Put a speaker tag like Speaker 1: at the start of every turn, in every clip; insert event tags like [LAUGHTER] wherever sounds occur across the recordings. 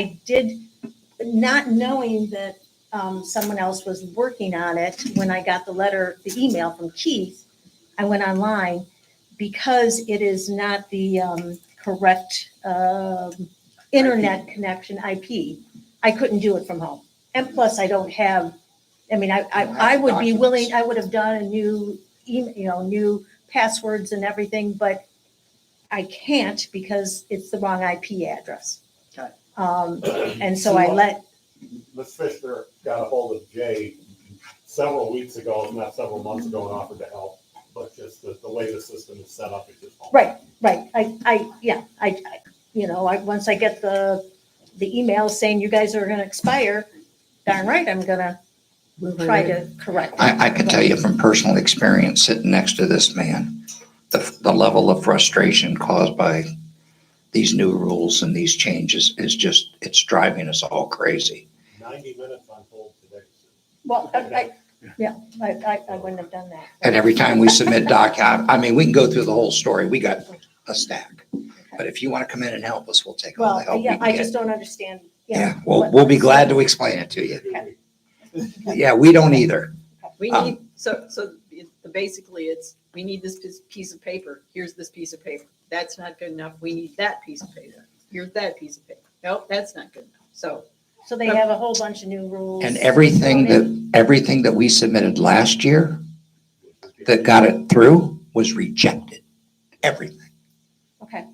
Speaker 1: I did, not knowing that um, someone else was working on it, when I got the letter, the email from Keith, I went online because it is not the um, correct um, internet connection IP. I couldn't do it from home. And plus, I don't have, I mean, I, I
Speaker 2: You don't have
Speaker 1: I would be
Speaker 2: documents.
Speaker 1: willing, I would have done a new, em- you know, new passwords and everything, but I can't because it's the wrong IP address.
Speaker 2: Okay.
Speaker 1: Um, and so I let,
Speaker 3: Ms. Fisher got a hold of Jay several weeks ago, if not several months ago, and offered to help. But just the, the way the system is set up, it just. won't-
Speaker 1: right, right, I, I, yeah, I, I- you know, I, once I get the, the email saying you guys are gonna expire, darn right, I'm gonna try to correct. it.
Speaker 4: I, I can tell you from personal experience, sitting next to this man, the, the level of frustration caused by these new rules and these changes is just, it's driving us all crazy.
Speaker 3: Ninety minutes on hold today.
Speaker 1: Well, I, I, yeah, I, I, I wouldn't have done that.
Speaker 4: And every time
Speaker 1: [LAUGHS]
Speaker 4: we submit doc, I, I mean, we can go through the whole story. We got a stack. But if you want to come in and help us, we'll take all the
Speaker 1: Well,
Speaker 4: help we
Speaker 1: yeah,
Speaker 4: can
Speaker 1: I
Speaker 4: get.
Speaker 1: just don't understand, yeah.
Speaker 4: Yeah, we'll, we'll be glad to explain it to you.
Speaker 3: Excuse me.
Speaker 4: Yeah, we don't either.
Speaker 2: We
Speaker 4: Um,
Speaker 2: need, so, so it- basically it's, we need this piece- piece of paper, here's this piece of paper. That's not good enough, we need that piece of paper, here's that piece of paper. Nope, that's not good enough, so.
Speaker 1: So they have a whole bunch of new rules.
Speaker 4: And everything that, everything that we submitted last year that got it through was rejected. Everything.
Speaker 1: Okay,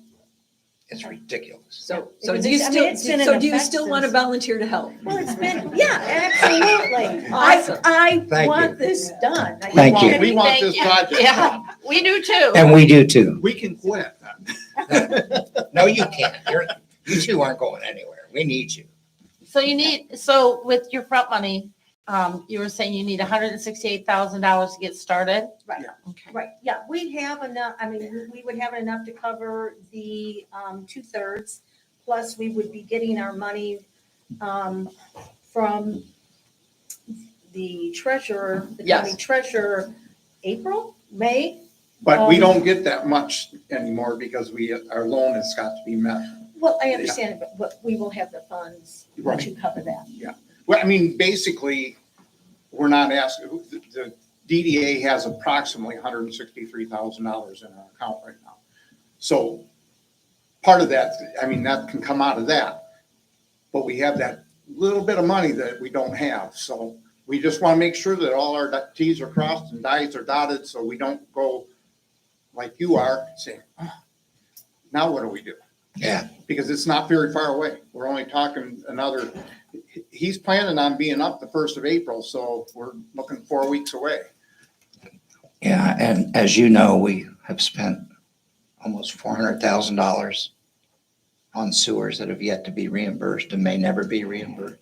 Speaker 4: It's ridiculous.
Speaker 2: So,
Speaker 1: Yeah,
Speaker 2: so
Speaker 1: because
Speaker 2: do you
Speaker 1: it's- I mean,
Speaker 2: still,
Speaker 1: it's been
Speaker 2: so
Speaker 1: in
Speaker 2: do you
Speaker 1: effect
Speaker 2: still want to
Speaker 1: since-
Speaker 2: volunteer to help?
Speaker 1: well, it's been, yeah, absolutely.
Speaker 2: Awesome.
Speaker 1: I, I
Speaker 4: Thank
Speaker 1: want
Speaker 4: you.
Speaker 1: this done. I
Speaker 4: Thank you.
Speaker 5: We want
Speaker 1: anything-
Speaker 5: this project.
Speaker 6: Yeah, we do too.
Speaker 4: And we do too.
Speaker 5: We can quit.
Speaker 4: No, you can't. You're, you two aren't going anywhere. We need you.
Speaker 6: So you need, so with your front money, um, you were saying you need hundred and sixty-eight thousand dollars to get started?
Speaker 1: Right.
Speaker 6: Okay.
Speaker 1: Right, yeah, we have enough, I mean, we- we would have enough to cover the um, two-thirds, plus we would be getting our money um, from the treasurer, the county
Speaker 2: Yes.
Speaker 1: treasurer, April, May?
Speaker 5: But we
Speaker 1: Um,
Speaker 5: don't get that much anymore because we, our loan has got to be met.
Speaker 1: Well, I understand, it, but- but we will have the funds to cover that.
Speaker 5: Well, I mean, basically, we're not asking, the DDA has approximately hundred and sixty-three thousand dollars in our account right now. So part of that, I mean, that can come out of that. But we have that little bit of money that we don't have, so we just want to make sure that all our dot- Ts are crossed and Is are dotted, so we don't go like you are, saying, "Ah, now what do we do?
Speaker 4: Yeah.
Speaker 5: because it's not very far away. We're only talking another, he's planning on being up the first of April, so we're looking four weeks away.
Speaker 4: Yeah. And as you know, we have spent almost four hundred thousand dollars on sewers that have yet to be reimbursed and may never be reimbursed.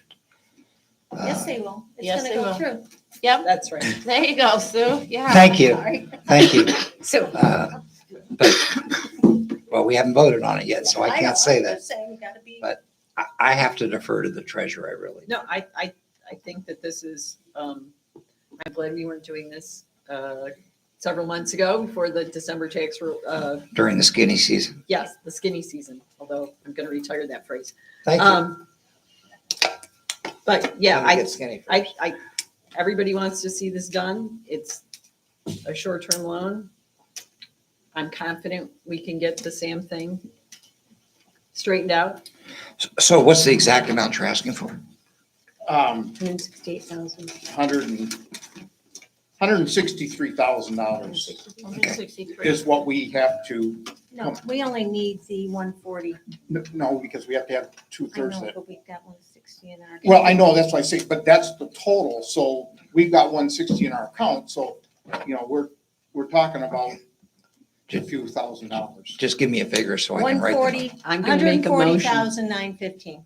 Speaker 1: Yes,
Speaker 4: Uh,
Speaker 1: they will. It's
Speaker 6: Yes,
Speaker 1: gonna
Speaker 6: they
Speaker 1: go
Speaker 6: will.
Speaker 1: through.
Speaker 2: That's
Speaker 6: [LAUGHS]
Speaker 2: right.
Speaker 6: There you go, Sue, yeah.
Speaker 4: Uh, Thank you.
Speaker 1: Sorry.
Speaker 4: Thank you.
Speaker 2: So,
Speaker 4: Uh, But, well, we haven't voted on it yet, so Oh, I
Speaker 1: know,
Speaker 4: can't say
Speaker 1: I'm
Speaker 4: that.
Speaker 1: just saying, we gotta be.
Speaker 4: But- I, I have to defer to the treasurer, I really.
Speaker 2: no, I, I, I think that this is, um, I'm glad we weren't doing this, uh, several months ago before the December tax, ru- uh,
Speaker 4: During the skinny season.
Speaker 2: yes, the skinny season, although I'm going to retire that phrase.
Speaker 4: Thank you.
Speaker 2: Um, but yeah,
Speaker 4: Let me
Speaker 2: I,
Speaker 4: get skinny first.
Speaker 2: I, I, everybody wants to see this done. It's a short-term loan. I'm confident we can get the Sam thing straightened out.
Speaker 4: So what's the exact amount you're asking for?
Speaker 5: Um,
Speaker 2: Hundred and sixty-eight thousand.
Speaker 5: hundred and, hundred and sixty-three thousand dollars
Speaker 6: $163,000.
Speaker 5: is what we have to,
Speaker 1: No, we only need the one forty.
Speaker 5: no, because we have to have two
Speaker 1: I
Speaker 5: thirds
Speaker 1: know,
Speaker 5: that.
Speaker 1: but we've got one sixty in our.
Speaker 5: Well, I know, that's why I say, but that's the total, so we've got one sixty in our account, so, you know, we're, we're talking about a few thousand dollars.
Speaker 4: Just give me a figure so I can
Speaker 1: One
Speaker 4: write.
Speaker 1: forty,
Speaker 2: I'm going to
Speaker 1: Hundred
Speaker 2: make
Speaker 1: and
Speaker 2: a
Speaker 1: forty
Speaker 2: motion.
Speaker 1: thousand nine fifteen.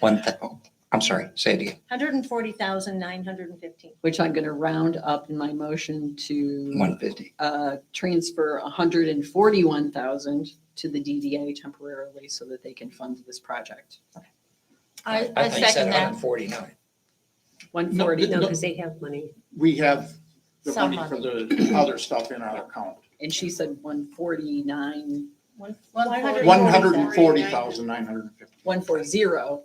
Speaker 4: One, thou- I'm sorry, say it again.
Speaker 1: Hundred and forty thousand nine hundred and fifteen.
Speaker 2: Which I'm going to round up in my motion to,
Speaker 4: One fifty.
Speaker 2: uh, transfer hundred and forty-one thousand to the DDA temporarily so that they can fund this project.
Speaker 6: I, I second that.
Speaker 4: Forty-nine.
Speaker 2: One
Speaker 5: No,
Speaker 2: forty,
Speaker 5: no,
Speaker 2: and
Speaker 5: because they have money. We have the
Speaker 6: Some
Speaker 5: money for the other stuff in our account.
Speaker 2: she said one forty-nine
Speaker 1: One-
Speaker 6: One forty.
Speaker 5: One
Speaker 1: 140,000.
Speaker 5: hundred and forty thousand, nine hundred and fifty.
Speaker 2: one four zero.